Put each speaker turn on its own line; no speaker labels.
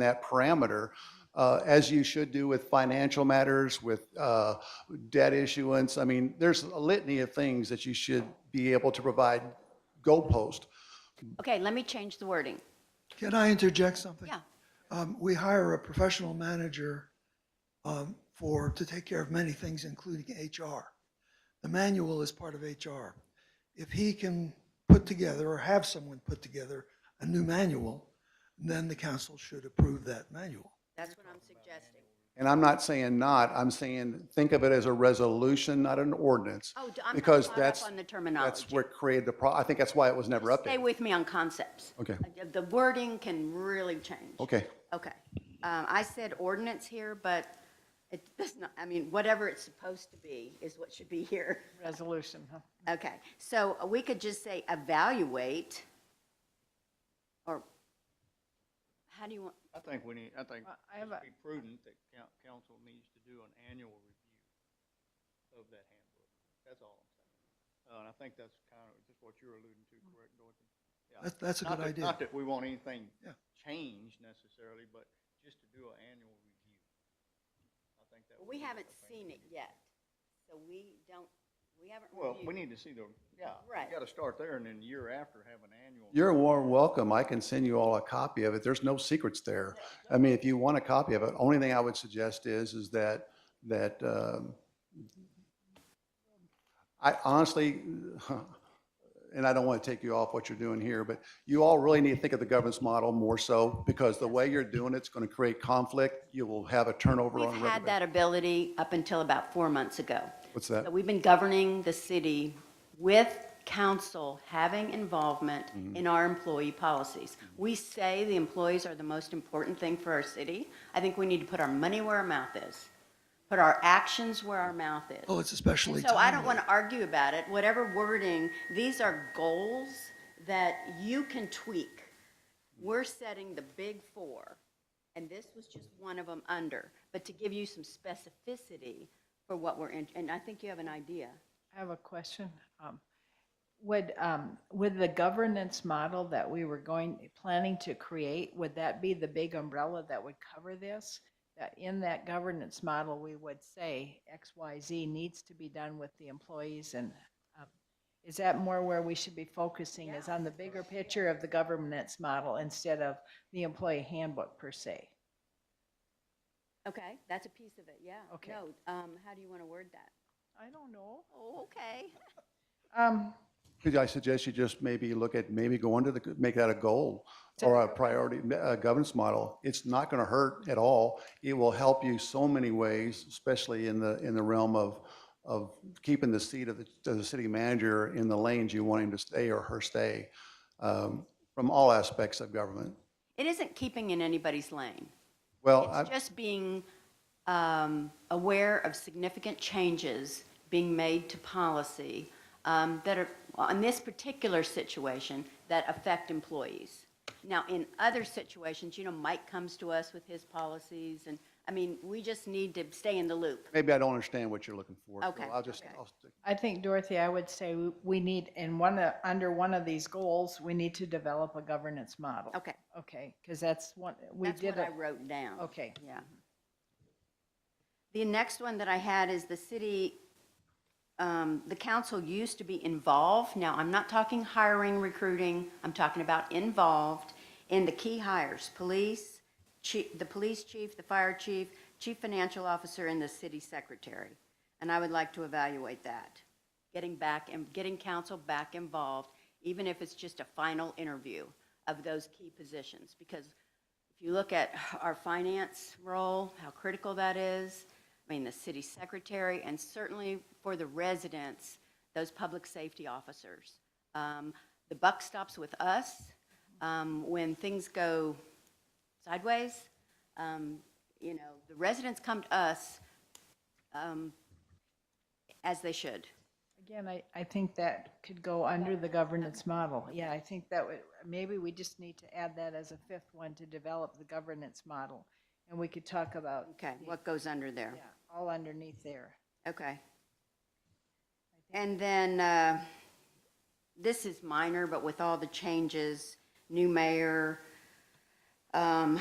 that parameter, uh, as you should do with financial matters, with uh, debt issuance. I mean, there's a litany of things that you should be able to provide goalpost.
Okay, let me change the wording.
Can I interject something?
Yeah.
Um, we hire a professional manager, um, for, to take care of many things, including HR. The manual is part of HR. If he can put together or have someone put together a new manual, then the council should approve that manual.
That's what I'm suggesting.
And I'm not saying not, I'm saying think of it as a resolution, not an ordinance.
Oh, d- I'm not
because
caught
that's
up on the
That's
terminology.
what created the pro, I think that's why it was never
Stay
updated.
with me on concepts.
Okay.
Uh, The wording can really change.
Okay,
Okay. Um, I said ordinance here, but it does not, I mean, whatever it's supposed to be is what should be here.
Resolution, huh?
Okay, so uh, we could just say evaluate, or how do you want,
I think we need, I think
Well, I have
it's
a-
be prudent that coun- council needs to do an annual review of that handbook. That's all I'm saying. Uh, And I think that's kind of just what you're alluding to, correct, Dorothy? Yeah.
That's, that's a good
Not that-
idea.
Not that we want anything
Yeah.
changed necessarily, but just to do an annual review. I think that. would
we
be the
haven't
thing to
seen it
do.
yet, so we don't, we haven't
Well, we
reviewed.
need to see the, yeah.
Right.
You got to start there and then the year after have an annual.
you're warm welcome, I can send you all a copy of it, there's no secrets there. I mean, if you want a copy of it, only thing I would suggest is, is that, that, um, I honestly, and I don't want to take you off what you're doing here, but you all really need to think of the governance model more so, because the way you're doing it's going to create conflict, you will have a turnover on a
We've
regular
had that ability up until about four months ago.
What's that?
So We've been governing the city with council having involvement in our employee policies. We say the employees are the most important thing for our city. I think we need to put our money where our mouth is, put our actions where our mouth is.
Oh, it's especially
So I don't
timely.
want to argue about it, whatever wording, these are goals that you can tweak. We're setting the big four, and this was just one of them under, but to give you some specificity for what we're in, and I think you have an idea.
I have a question. Um, Would, um, would the governance model that we were going, planning to create, would that be the big umbrella that would cover this? That in that governance model, we would say X, Y, Z needs to be done with the employees and um, is that more where we should be focusing is on the bigger picture of the governance model instead of the employee handbook per se?
Okay, that's a piece of it, yeah.
Okay.
No, um, how do you want to word that?
I don't know.
Oh, okay.
Um,
Could I suggest you just maybe look at, maybe go under the, make that a goal or a priority uh, governance model? It's not going to hurt at all. It will help you so many ways, especially in the, in the realm of, of keeping the seat of the, of the city manager in the lanes you want him to stay or her stay um, from all aspects of government.
It isn't keeping in anybody's lane.
Well, I-
It's just being um, aware of significant changes being made to policy um, that are, on this particular situation, that affect employees. Now, in other situations, you know, Mike comes to us with his policies, and, I mean, we just need to stay in the loop.
maybe I don't understand what you're looking for. so
Okay,
I'll just,
okay.
I'll stick-
I think, Dorothy, I would say we- we need, in one, of- under one of these goals, we need to develop a governance model.
Okay,
Okay, because that's one, we
that's
did,
what I
a-
wrote down.
okay.
Yeah. The next one that I had is the city, um, the council used to be involved. Now, I'm not talking hiring, recruiting, I'm talking about involved in the key hires, police, chi- the police chief, the fire chief, chief financial officer, and the city secretary. And I would like to evaluate that, getting back, and getting council back involved, even if it's just a final interview of those key positions. Because if you look at our finance role, how critical that is, I mean, the city secretary, and certainly for the residents, those public safety officers. Um, The buck stops with us. Um, When things go sideways, um, you know, the residents come to us um, as they should.
Again, I, I think that could go under the governance model. Yeah, I think that would, maybe we just need to add that as a fifth one to develop the governance model. And we could talk about,
Okay, what goes under there?
yeah, all underneath there.
Okay. And then, uh, this is minor, but with all the changes, new mayor, um,